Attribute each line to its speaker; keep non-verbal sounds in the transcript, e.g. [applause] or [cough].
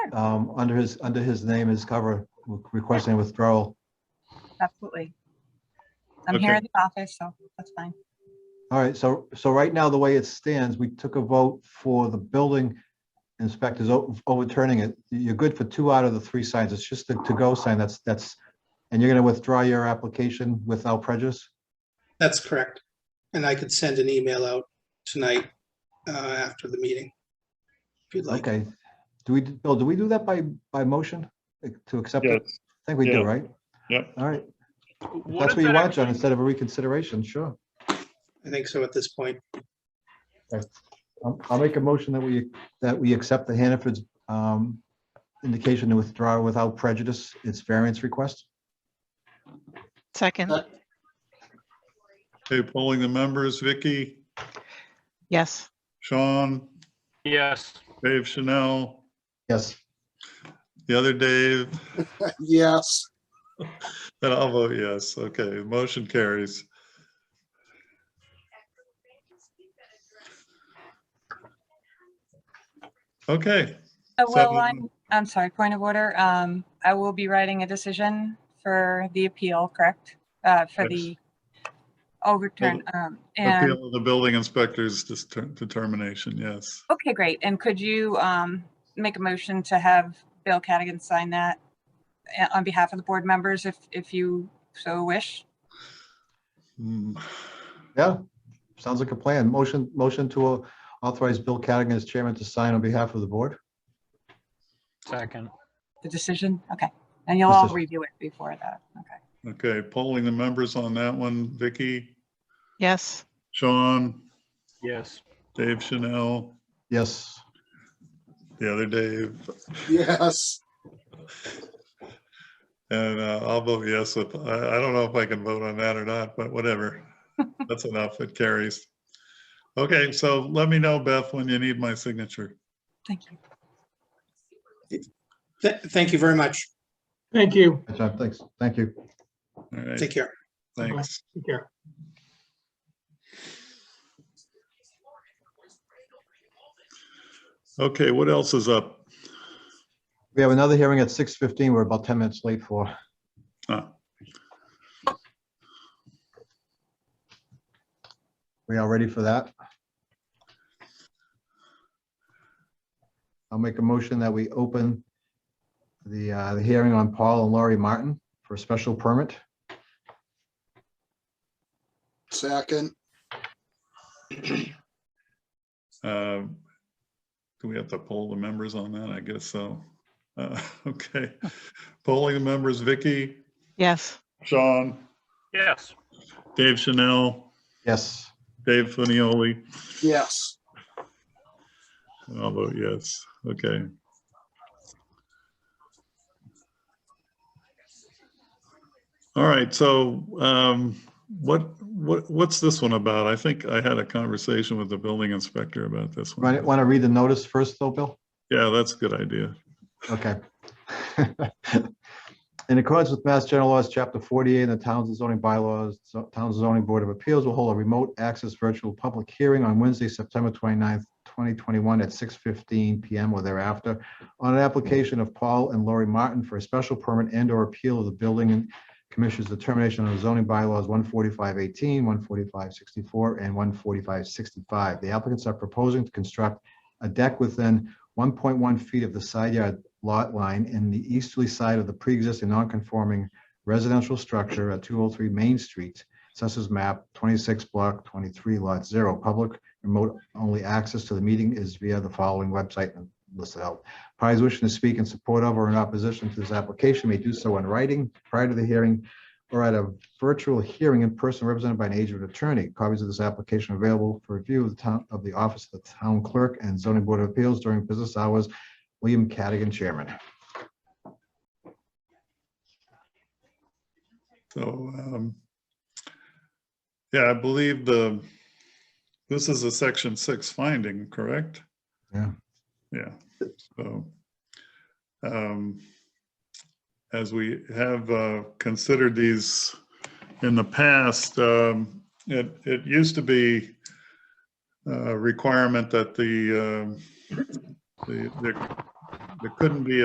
Speaker 1: um, under his, under his name, his cover, requesting withdrawal.
Speaker 2: absolutely. I'm
Speaker 3: Okay.
Speaker 2: here in the office, so that's fine.
Speaker 1: All right, so, so right now, the way it stands, we took a vote for the building inspectors o- overturning it. You're good for two out of the three signs. It's just the to-go sign that's, that's, and you're gonna withdraw your application without prejudice?
Speaker 4: That's correct. And I could send an email out tonight uh, after the meeting. If you'd like.
Speaker 1: Okay. Do we, Bill, do we do that by, by motion like, to accept it?
Speaker 3: Yes,
Speaker 1: I think we do,
Speaker 3: yeah.
Speaker 1: right?
Speaker 3: Yep.
Speaker 1: All right. If
Speaker 5: What
Speaker 1: That's what
Speaker 5: if
Speaker 1: you
Speaker 5: that
Speaker 1: want, John,
Speaker 5: actually-
Speaker 1: instead of a reconsideration, sure.
Speaker 4: I think so at this point.
Speaker 1: I'll I'll make a motion that we, that we accept the Hannaford's um, indication to withdraw without prejudice its variance request.
Speaker 6: Second,
Speaker 4: Uh,
Speaker 3: okay, polling the members, Vicky,
Speaker 6: yes.
Speaker 3: Sean,
Speaker 5: Yes,
Speaker 3: Dave Chanel,
Speaker 1: Yes.
Speaker 3: the other Dave,
Speaker 4: Yes.
Speaker 3: and I'll vote yes. Okay, motion carries. Okay,
Speaker 2: Uh, Well,
Speaker 3: Seven.
Speaker 2: I'm, I'm sorry, point of order. Um, I will be writing a decision for the appeal, correct? Uh, for
Speaker 3: Yes.
Speaker 2: the overturn, um, and,
Speaker 3: appeal of the building inspector's dis- determination, yes.
Speaker 2: okay, great. And could you, um, make a motion to have Bill Cadigan sign that uh, on behalf of the board members if, if you so wish?
Speaker 3: Hmm.
Speaker 1: Yeah, sounds like a plan. Motion, motion to uh, authorize Bill Cadigan as chairman to sign on behalf of the board.
Speaker 5: second,
Speaker 2: The decision? Okay. And you'll all
Speaker 1: Decision.
Speaker 2: review it before that. Okay.
Speaker 3: Okay, polling the members on that one, Vicky,
Speaker 6: Yes,
Speaker 3: Sean,
Speaker 5: yes,
Speaker 3: Dave Chanel,
Speaker 1: Yes.
Speaker 3: the other Dave,
Speaker 4: Yes.
Speaker 3: And uh, I'll vote yes with, I, I don't know if I can vote on that or not, but
Speaker 4: [laughs]
Speaker 3: whatever. That's enough. It carries. Okay, so let me know, Beth, when you need my signature.
Speaker 2: Thank you.
Speaker 4: Thank you very much.
Speaker 7: Thank you.
Speaker 1: Good job. Thanks. Thank you.
Speaker 3: All right,
Speaker 4: Take care.
Speaker 3: thanks.
Speaker 7: Take care.
Speaker 3: Okay, what else is up?
Speaker 1: We have another hearing at 6:15. We're about 10 minutes late for.
Speaker 3: Ah.
Speaker 1: We all ready for that? I'll make a motion that we open the, uh, the hearing on Paul and Laurie Martin for a special permit.
Speaker 8: Second,
Speaker 3: Um, Do we have to poll the members on that? I guess so. Uh, [laughs] Okay, polling the members, Vicky,
Speaker 6: yes.
Speaker 3: Sean,
Speaker 5: yes,
Speaker 3: Dave Chanel,
Speaker 1: Yes.
Speaker 3: Dave Funioli.
Speaker 8: yes,
Speaker 3: And I'll vote yes. Okay. All right, so um, what, what, what's this one about? I think I had a conversation with the building inspector about this one.
Speaker 1: Want to read the notice first though, Bill?
Speaker 3: Yeah, that's a good idea.
Speaker 1: Okay. [laughs] In accordance with Mass General Laws, Chapter 48, and the Towns and Zoning Bylaws, so- Towns and Zoning Board of Appeals will hold a remote access virtual public hearing on Wednesday, September 29th, 2021 at 6:15 PM or thereafter on an application of Paul and Lori Martin for a special permit and/or appeal of the Building and Commission's determination of zoning bylaws 14518, 14564, and 14565. The applicants are proposing to construct a deck within 1.1 feet of the side yard lot line in the easterly side of the pre-existing non-conforming residential structure at 203 Main Street, Assessors Map 26 Block 23 Lot 0. Public remote only access to the meeting is via the following website and listed out. Parties wishing to speak in support of or in opposition to this application may do so in writing prior to the hearing or at a virtual hearing in person represented by an agent or attorney. Copies of this application are available for review of the town, of the office of the town clerk and zoning board of appeals during business hours. William Cadigan, chairman.
Speaker 3: So, um, yeah, I believe the, this is a section six finding, correct?
Speaker 1: Yeah.
Speaker 3: Yeah, so. um, As we have uh, considered these in the past, um, it, it used to be a requirement that the, um, the, there- there couldn't be